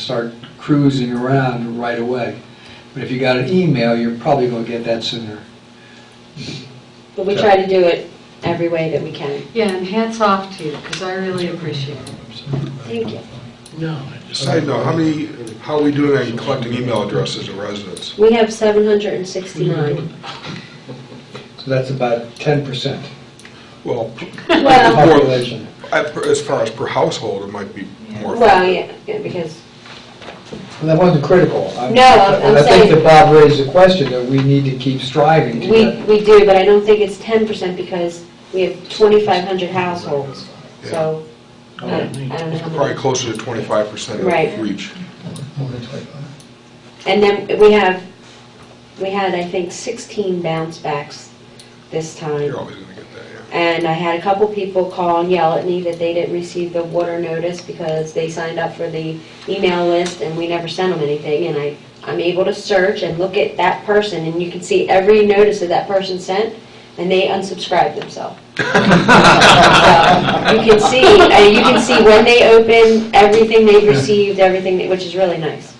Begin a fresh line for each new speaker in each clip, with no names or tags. start cruising around right away. But if you got an email, you're probably going to get that sooner.
But we try to do it every way that we can.
Yeah, and hats off to you, because I really appreciate it.
Thank you.
Side note, how many, how are we doing on collecting email addresses of residents?
We have 769.
So that's about 10%
Well,
of the
Well,
population.
at- as far as per household, it might be more.
well, yeah, yeah, because,
Well, that wasn't critical. I'm-
No, I'm- I'm
I think
saying-
that Bob raised the question that we need to keep striving to
we,
get.
we do, but I don't think it's 10% because we have 2,500 households, so
um,
I I don't know how
Oh, Probably
many.
closer to 25%
Right.
of reach.
And then we have, we had, I think, 16 bounce backs this time.
You're always going to get that, yeah.
And I had a couple people call and yell at me that they didn't receive the water notice because they signed up for the email list and we never sent them anything. And I, I'm able to search and look at that person and you can see every notice that that person sent and they unsubscribed themselves. So, You can see, uh, you can see when they open, everything they've received, everything, that- which is really nice.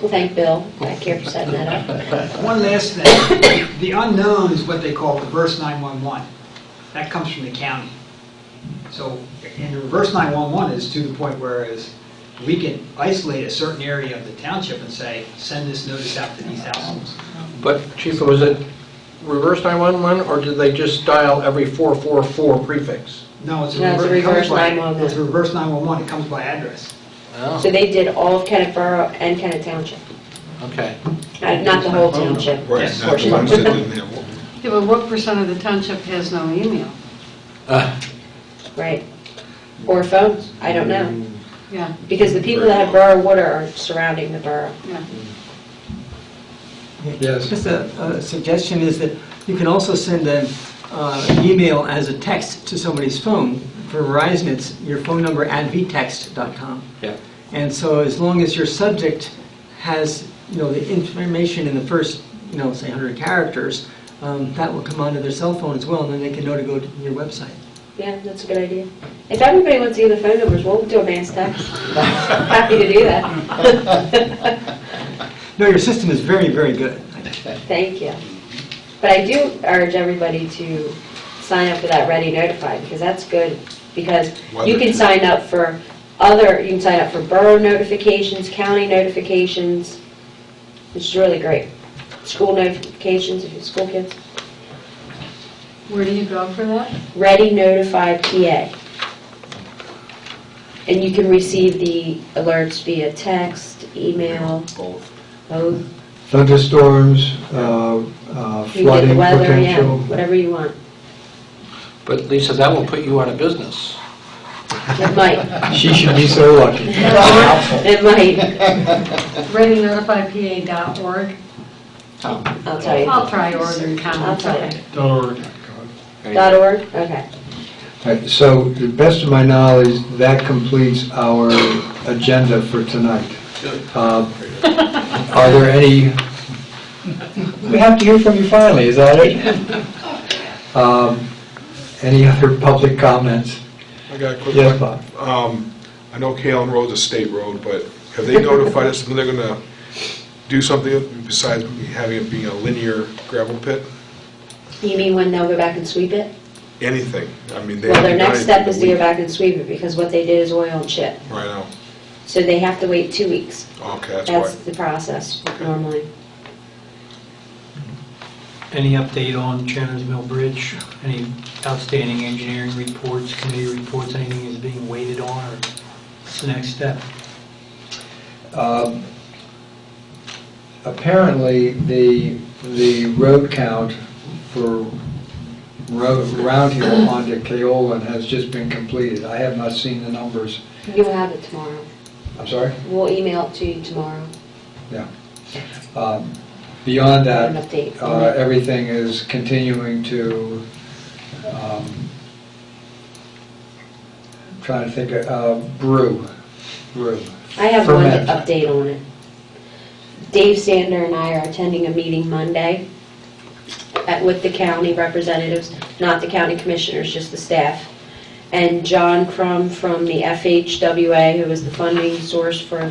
Well, thank Bill back here for setting that up.
One last thing, the unknown is what they call reverse 911. That comes from the county. So, and the reverse 911 is to the point whereas we can isolate a certain area of the township and say, send this notice out to these households.
But Chief, was it reverse 911, or did they just dial every 444 prefix?
No, it's a
No, it's a
reverse. it comes
reverse
by-
911.
It's a reverse 911, it comes by address. Oh,
So they did all of Kennet Borough and Kennet Township,
Okay.
Uh, not the whole township.
Right,
Yes.
not the ones that didn't have one.
Yeah, but what percent of the township has no email?
Uh,
Right. Or phones, I don't know.
Yeah,
Because the people that have borough water are surrounding the borough.
yeah.
Yes.
Just a a suggestion is that you can also send an uh, email as a text to somebody's phone. For Verizon, it's your phone number at vtext.com.
Yeah.
And so as long as your subject has, you know, the information in the first, you know, say 100 characters, um, that will come onto their cell phone as well, and then they can know to go to your website.
Yeah, that's a good idea. If everybody wants to give the phone numbers, we'll do a mass text. Happy to do that.
No, your system is very, very good.
Thank you. But I do urge everybody to sign up for that Ready Notify, because that's good, because you can sign up for other, you can sign up for borough notifications, county notifications, which is really great. School notifications, if you're school kids.
Where do you go for that?
Ready Notify PA. And you can receive the alerts via text, email,
Both.
both,
Thunderstorms, uh, uh,
you get the
flooding
weather, yeah,
potential.
whatever you want.
But Lisa, that will put you out of business.
It might,
She should be so lucky.
it might,
ReadyNotifyPA.org.
I'll tell you.
I'll try Oregon
I'll
Common.
tell you.
Any-
Dot org, okay.
Right, So, to the best of my knowledge, that completes our agenda for tonight. Um, Are there any, we have to hear from you finally, is that it? Um, Any other public comments?
I got a quick one.
Yes, Bob?
Um, I know Kalen Road's a state road, but have they notified us when they're gonna do something besides having it being a linear gravel pit?
You mean when they'll go back and sweep it?
Anything? I mean, they
Well, their
haven't done
next step
anything
is
in
to
a
go
week.
back and sweep it, because what they did is oil and chip.
Right now.
So they have to wait two weeks.
Okay, that's
That's
why.
the process normally.
Any update on Chandler's Mill Bridge? Any outstanding engineering reports, committee reports, anything is being waited on, or what's the next step?
Um, Apparently, the, the road count for road, around here onto Keolin has just been completed. I have not seen the numbers.
You'll have it tomorrow.
I'm sorry?
We'll email it to you tomorrow,
Yeah. Um, Beyond
an
that,
update. on
uh,
it.
everything is continuing to, um, trying to think, uh, brew, brew.
I have one
ferment.
update on it. Dave Sander and I are attending a meeting Monday at- with the county representatives, not the county commissioners, just the staff. And John Crum from the FHWA, who is the funding source for